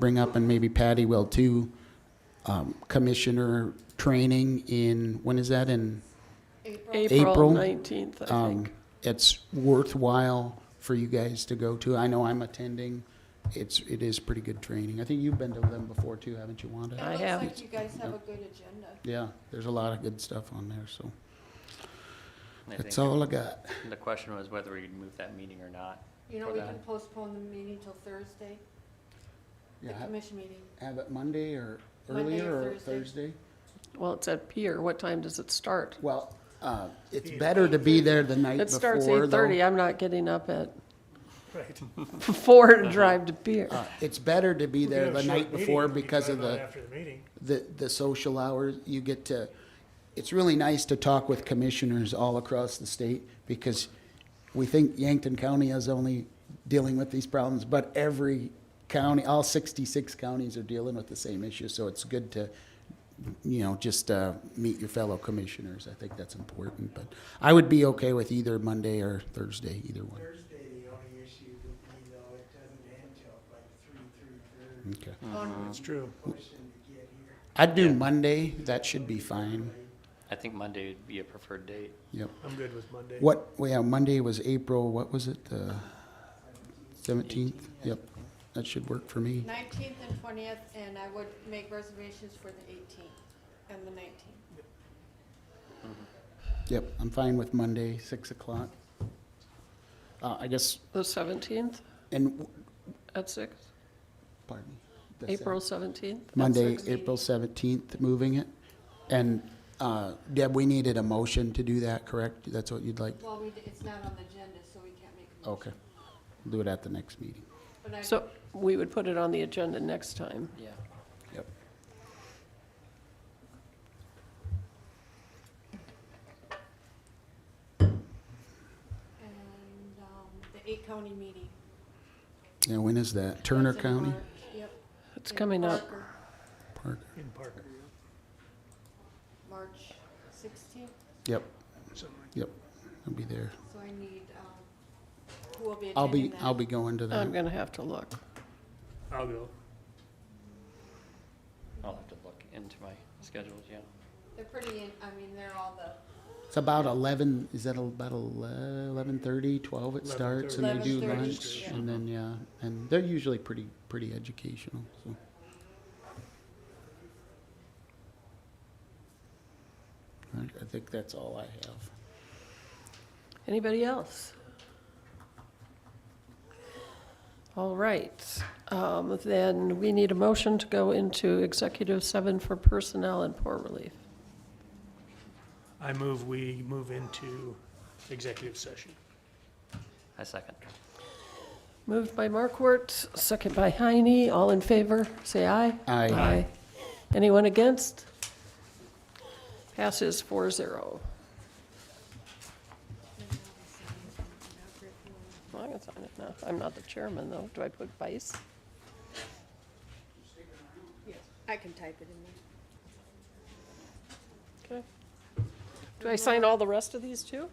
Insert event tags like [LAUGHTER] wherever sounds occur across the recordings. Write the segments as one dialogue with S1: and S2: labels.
S1: bring up, and maybe Patty will too, um, commissioner training in, when is that in? April.
S2: April 19th, I
S1: Um,
S2: think.
S1: It's worthwhile for you guys to go to. I know I'm attending. It's, it is pretty good training. I think you've been to them before too, haven't you, Wanda?
S2: Yeah. I have.
S3: It looks like you guys have a good agenda.
S1: Yeah, there's a lot of good stuff on there, so
S4: I
S1: that's
S4: think
S1: all I got.
S4: The question was whether we'd move that meeting or not.
S3: You know,
S4: for
S3: we
S4: that.
S3: can postpone the meeting till Thursday, the
S1: Yeah, ha-
S3: commission meeting.
S1: have it Monday or
S3: Monday
S1: earlier
S3: or
S1: or Thursday?
S3: Thursday.
S2: Well, it's at Pier. What time does it start?
S1: Well, uh, it's better to be there the night
S2: It starts
S1: before, though.
S2: 8:30. I'm not getting up at [LAUGHS] four to drive to Pier.
S1: Uh, It's better to be there the night before because of the,
S5: After the meeting.
S1: the, the social hours. You get to, it's really nice to talk with commissioners all across the state because we think Yankton County is only dealing with these problems, but every county, all 66 counties are dealing with the same issue. So it's good to, you know, just uh, meet your fellow commissioners. I think that's important. But I would be okay with either Monday or Thursday, either one.
S6: Thursday, the only issue would be though, it doesn't end till like three, three thirty,
S1: Okay.
S5: It's true.
S6: pushing to get here.
S1: I'd do Monday. That should be fine.
S4: I think Monday would be a preferred date.
S1: Yep.
S5: I'm good with Monday.
S1: What, yeah, Monday was April, what was it, the seventeenth? Yep, that should work for me.
S3: Nineteenth and twentieth, and I would make reservations for the eighteenth and the nineteenth.
S1: Yep, I'm fine with Monday, six o'clock. Uh, I guess,
S2: The 17th
S1: and,
S2: at 6?
S1: pardon me. the
S2: April 17th? at
S1: Monday,
S2: 6?
S1: April seventeenth, moving it. And, uh, Deb, we needed a motion to do that, correct? That's what you'd like?
S3: Well, we, d- it's not on the agenda, so we can't make a
S1: Okay,
S3: motion.
S1: do it at the next meeting.
S3: But I-
S2: So we would put it on the agenda next time.
S4: Yeah.
S1: Yep.
S3: And, um, the eight county meeting.
S1: Yeah, when is that? Turner
S3: That's in
S1: County?
S3: March. Yep.
S2: It's
S3: in
S2: coming up.
S3: Parker,
S1: Parker.
S5: In Parker,
S3: March sixteenth,
S1: Yep,
S5: something like
S1: yep, I'll be there.
S3: so I need, um, who will be
S1: I'll
S3: attending
S1: be,
S3: that?
S1: I'll be going to
S3: Oh,
S2: I'm
S1: that.
S2: going to have to look.
S5: that. I'll go.
S4: I'll have to look into my schedules, yeah.
S3: They're pretty, in- I mean, they're all the
S1: It's about eleven, is that about eleven thirty, twelve it starts, and they do
S3: 11:30,
S1: lunch,
S3: yeah.
S1: and then, yeah, and they're usually pretty, pretty educational, so. I I think that's all I have.
S2: Anybody else? All right, um, then we need a motion to go into executive seven for personnel and poor relief.
S5: I move, we move into executive session.
S4: I second.
S2: Moved by Markwart, second by Heine, all in favor, say aye.
S1: Aye.
S2: Aye. Anyone against? Passes four zero. I can sign it now, I'm not the chairman though, do I put vice?
S3: I can type it in there.
S2: Okay. Do I sign all the rest of these too?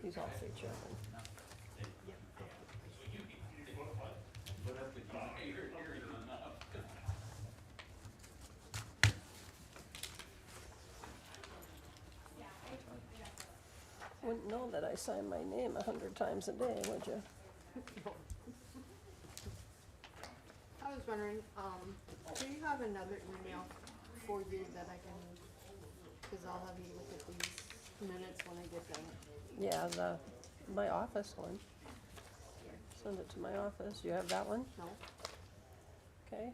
S2: He's all three children. Wouldn't know that I sign my name a hundred times a day, would you?
S3: I was wondering, um, do you have another email for you that I can, cause I'll have you look at these minutes when I get them.
S2: Yeah, the, my office one. Send it to my office. You have that one?
S3: No?
S2: Okay.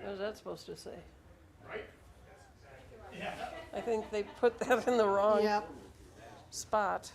S2: What was that supposed to say? Right? I think they put that in the wrong
S3: Yep,
S2: spot.